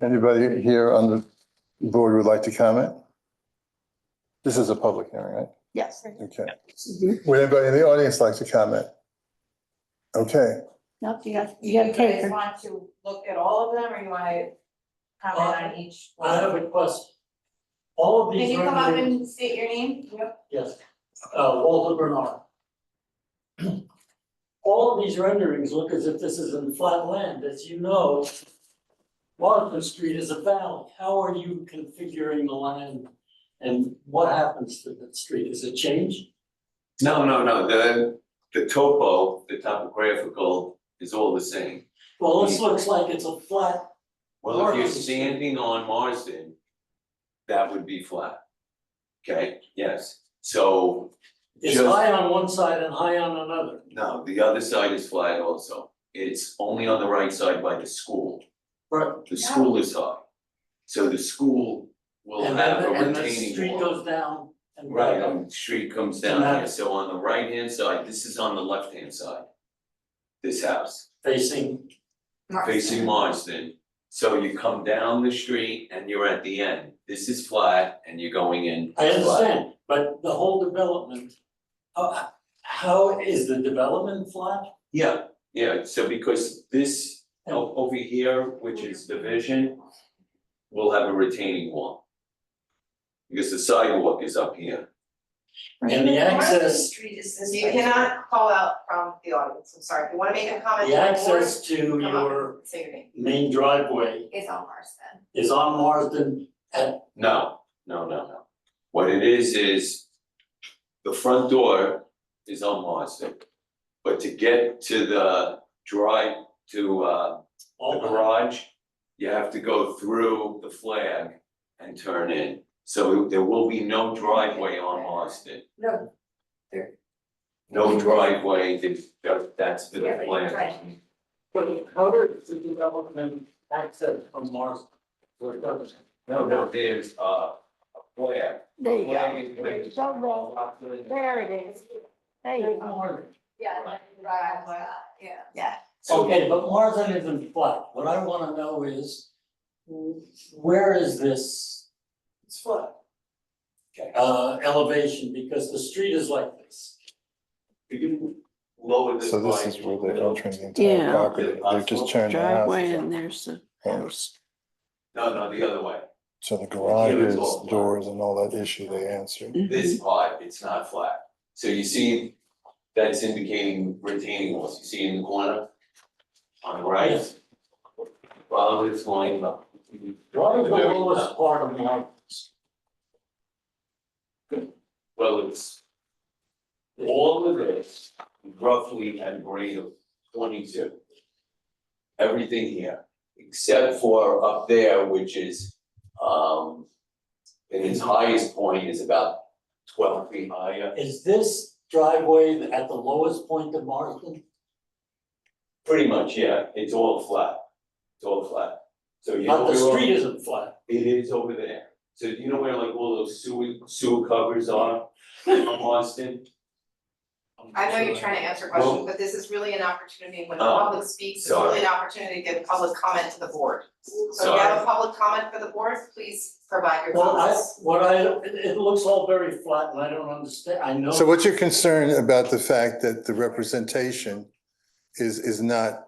Anybody here on the board would like to comment? This is a public hearing, right? Yes. Okay. Would anybody in the audience like to comment? Okay, Nope, you got, Do you got you a guys taker. want to look at all of them, or you wanna comment on each I have one? a question. All of Can these you come up renderings, and state your name? Yep. yes, uh, Walter Bernard. All of these renderings look as if this is in flat land, as you know. Martha Street is a valley, how are you configuring the land? And what happens to the street, is it changed? No, no, no, the, the topo, the topographical is all the same. Well, this looks like it's a flat, Well, if you're Marsden. standing on Marsden, that would be flat. Okay, yes, so, it's Just- high on one side and high on another. no, the other side is flat also. It's only on the right side by the school, Right. the school is high. So the school will And have a then, and the retaining street wall. goes down and Right, back up. and the street comes And down that- here, so on the right hand side, this is on the left hand side. This house. facing, facing Marsden. So you come down the street and you're at the end. This is flat and you're going in. I flat. understand, but the whole development, uh, how is the development flat? Yeah, yeah, so because this o- over here, which is division, will have a retaining wall. Because the sidewalk is up here. And the access, Street is this. You cannot call out from the audience, I'm sorry, if you wanna make a comment the to the board, access to come up your and say your name. main driveway It's on Marsden. is on Marsden. No, no, no, no. What it is, is the front door is on Marsden. But to get to the drive, to uh the all the- garage, you have to go through the flag and turn in. So there will be no driveway on Austin. No, No driveway, that- that's the Yeah, but you're plan. But how does the development access from Marsden? Where it goes? No, no, there's uh, a flag. There you go. Flag is- There you go. There it is. There you go. yeah, that's right, well, yeah. Yeah. So Okay, but Marsden isn't flat. What I wanna know is, where is this? It's flat. Okay. Uh, elevation, because the street is like this. you can lower this so this line is where to they're the middle. entering the entire Yeah. property. They're just turning the driveway and house. there's the Yeah. house. No, no, the other way. So the Yeah, it's garages, all flat. doors and all that issue they answered. This part, it's not flat. So you see, that's indicating retaining walls. You see in the corner on the right? Yes. Follow this line up. What is the Very lowest top. part of Marsden? Well, it's all of this roughly at a grade of twenty-two. Everything here, except for up there, which is, um, in its highest point is about twelve feet higher. Is this driveway at the lowest point of Marsden? Pretty much, yeah, it's all flat, it's all flat. So you know Not the where all- street isn't flat. It is over there. So you know where like all those sewer, sewer covers are on Austin? I know you're trying to answer questions, but this is really an opportunity, when the Oh, public speaks, it's really an opportunity to give public comment to the board. So if you have a public comment for the board, please provide your Well, I, comments. what I, it, it looks all very flat and I don't understand, I know. So what's your concern about the fact that the representation is, is not,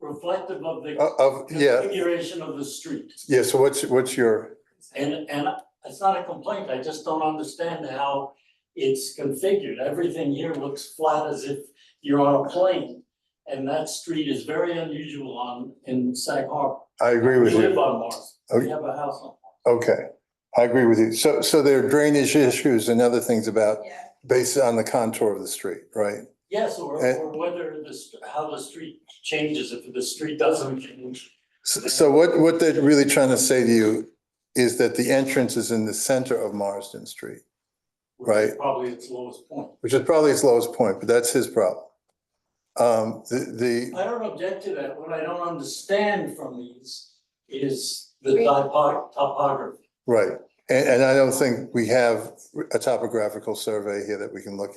Reflective of the of- of, Oh, yeah, configuration of the street. yeah, so what's, what's your, And, and it's not a complaint, I just don't understand how it's configured. Everything here looks flat as if you're on a plane. And that street is very unusual on, in Sag Harbor. I agree We with live you. Oh, on Mars, we have a house on. Okay, I agree with you. So, so there are drainage issues and other things about, Yeah. based on the contour of the street, right? Yes, or, And- or whether the, st- how the street changes, if the street doesn't change. So so what, what they're really trying to say to you is that the entrance is in the center of Marsden Street, which is Right. Probably its lowest point. which is probably its lowest point, but that's his problem. Um, the, I don't object to that, what I don't understand from these is the Great. typo- topography. the, right, and, and I don't think we have a topographical survey here that we can look at.